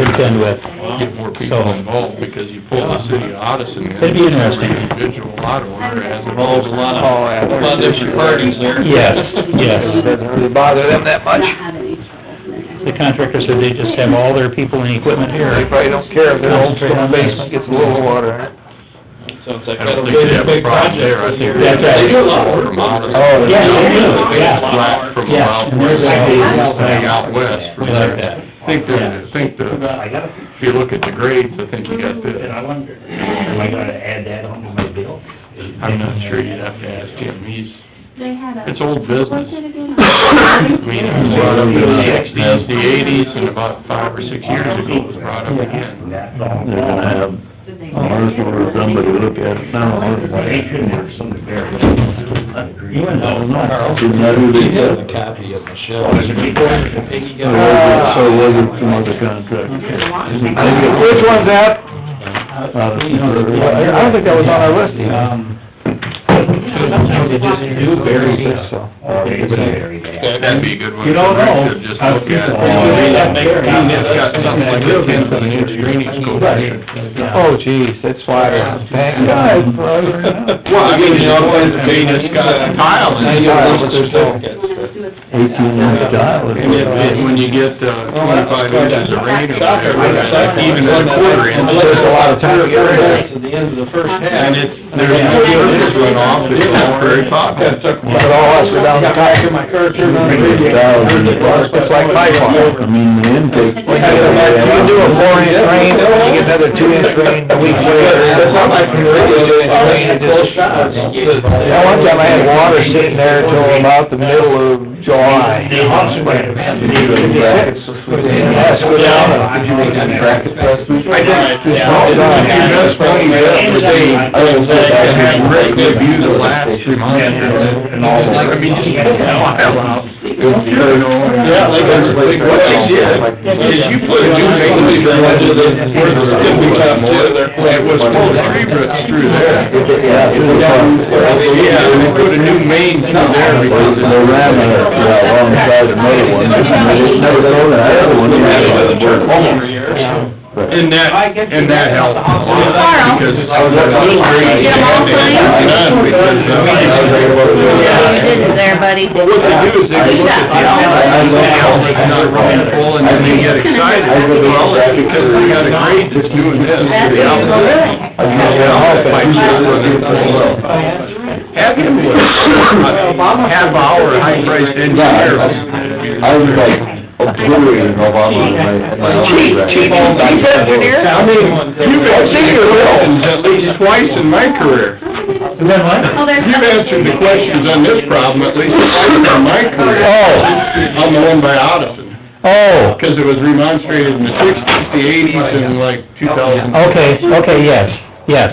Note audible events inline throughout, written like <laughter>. contend with. Well, get more people So- involved, because you pull the city of Odison. in, It'd be interesting. every Individual lot owner has Involves a lot of- Oh, yeah, a lot of different parties there. Yes, yes. <laughs> It doesn't really bother them that much. Not have any trouble. The contractor said they just have all their people and equipment here. They probably don't care if their old storm basement gets a little water in it. Sounds like I that'll don't be think they a have a big problem there, I project. think. That's right. They do a lot of work from Odison. Oh, Yeah, they do, They yeah. just lack From Yeah, out and there's west, a- way out west from We like there. that. I think that, I think that, if you look at the grades, I think you got And I this. wonder, am I gonna add that on to my bill? I'm not sure, you'd have to ask him, he's, They had a. it's old business. What's it again? <coughs> I mean, it was brought up in the sixties, the eighties, and about five or six years ago it was brought up again. That long. They're gonna have Did they- Marshall or somebody look at it now, or But they not. shouldn't have some of their. You went down, Didn't that who they said? copy of Michelle. There's a big one, a big- So was it- so was it some other contractor? I think it was- Which one's that? Uh, I don't think that was on our list. Um, Sometimes they just do bury this, So, or they do bury that. That'd be a good one. You don't know. to Uh, Just look at. Yeah. It's got something like a ten foot inch drainage go through it. oh geez, that's why, thank God. <laughs> for- Well, I mean, you know, it's being, it's got a tile in Now it. you know what It's- they're saying. Eighteen inch tile. And it- it- when you get uh, twenty-five inches of rain over there, it's even a quarter inch. There's a lot of time to get rid of it. At the end of the first half. And it's, there's no surface runoff, it's all very popular. But all us are down the top. My car turned on. It's like my fault. I mean, the intake. You can do a four inch rain, you get another two inch rain the week later. That's not like we really Two inch rain, it just- Yeah, one time I had water sitting there till about the middle of July. They also might have had to do it. Brackets. Yeah, it's go down and- Did you make any brackets last week? I did. Yeah. Well done. You just went yesterday, Oh, And had great good views the last three months. And all the- I mean, <laughs> just pull the tile out. Yeah, like oh, everybody- What they did, is you put a new basement in where the stem we cut more, it was full of tree roots through there. Yeah. it was Yeah, fun. and they put a new main through there because of They ran it uh, alongside another one, and they just never told that other one, you had to work But- And that, and that helped a lot, because. I was at Little Green. Get 'em all signed? Yeah, you did it there, buddy. But what they do is they look at the outlet, and the outlet's not running full, and then they get excited, well, it's because we got a grade that's doing this, to the outlet. I was And at the the outlet office, I might used not to work run in it full well. Have him with a half hour high-priced engineer. I was like, obliterated Obama in my, in my. Chief, chief, chief engineer? I mean, You've answered your questions at least twice in my career. Oh, You've answered the questions on <laughs> this problem at least twice in my career. Oh. On the one by Odison. oh, Because it was remonstrated in the sixties, the eighties, and like two thousand. Okay, okay, yes, yes.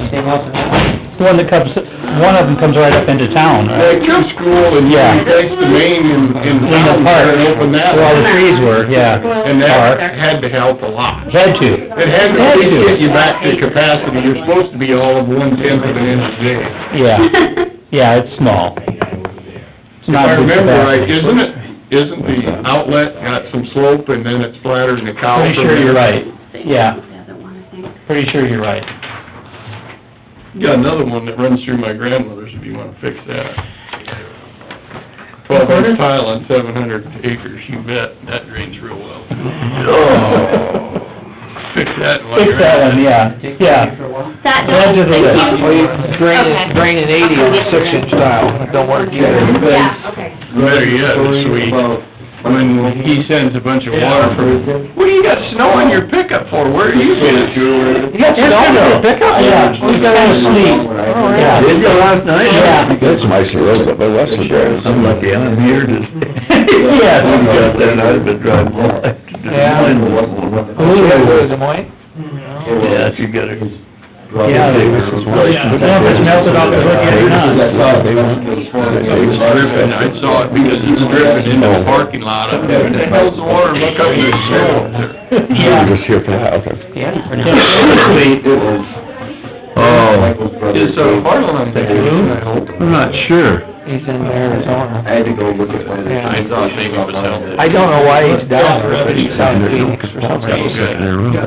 The One that comes, one of them comes right up into town, right? Like your school and you Yeah. next to Maine in, Lincoln in town, Park, and open that where all the up. trees were, yeah. And that Park. had to help a lot. Had to. It Had had to at least to. get you back to capacity, you're supposed to be all of one tenth of an inch a day. Yeah, yeah, it's small. It's If not I big remember capacity. right, isn't it, isn't the outlet got some slope and then it's flatter than the cow? Pretty from sure you're there? right, yeah, The other one, I think. pretty sure you're right. Got another one that runs through my grandmother's, if you wanna fix that. Twelve inch tile on seven hundred acres, you bet, that drains real well. Oh. Fix that one. Oh. Fix that one, yeah, yeah. That Add to does, the thank list. you. Well, you drain Okay. it, drain it eighty on a six inch tile, it don't work either. Yeah, okay. Better yet, it's sweet, when he sends a bunch of water from, what do you got snow on your pickup for, where are you getting it? You got snow though. Pickup? Yeah, we got a little sleep. Oh, Yeah. Did you last night? Yeah. That's my road, but my western drive, I'm lucky, I'm here just. <laughs> Yes. I got there and I've been driving all night. Yeah. Who had it, was it Moyne? Yeah, you got it. Yeah, they- Yeah. Yeah, if it's melted off, it's worth getting on. It was dripping, I saw it because it was dripping into the parking lot, I'm like, "What the hell's the water, look up, there's snow up there. Yeah. Just here for the house. Yeah. Oh. Is, uh, Farland on there? I'm not sure. He's in Arizona. had to go look at one of Yeah. I thought maybe it was out there. I don't know why he's down there, but he's out in Phoenix or something. Okay.